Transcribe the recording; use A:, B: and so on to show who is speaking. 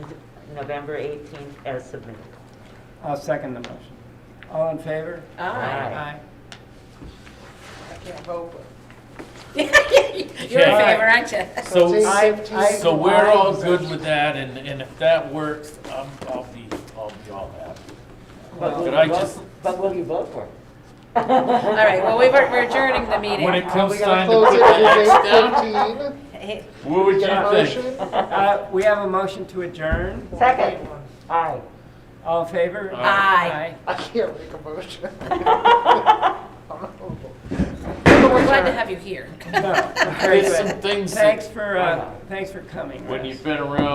A: November 18th as submitted.
B: I'll second the motion. All in favor?
A: Aye.
C: I can't vote, but
D: You're in favor, aren't you?
E: So,
C: it's
B: I- I-
E: so we're all good with that, and, and if that works, I'm, I'll be, I'll be all happy.
A: But will
E: Could I
A: you vote-
E: just-
A: But will you vote for it?
D: All right, well, we were, we're adjourning the
E: When it
D: meeting.
E: comes
C: Uh, we gotta
E: time to
C: close
E: put
C: it
E: the
C: at
E: next down,
C: eight fifteen.
D: Hey,
E: what would you
C: Get a
E: think?
C: motion?
B: Uh, We have a motion to adjourn.
A: Second. Aye.
B: All in favor?
D: Aye.
C: I can't make a motion. I'm not voting.
D: We're glad to have you here.
B: No. Very
E: There's some
B: good.
E: things that-
B: Thanks for, uh, thanks for coming.
E: when
B: Russ.
E: you've been around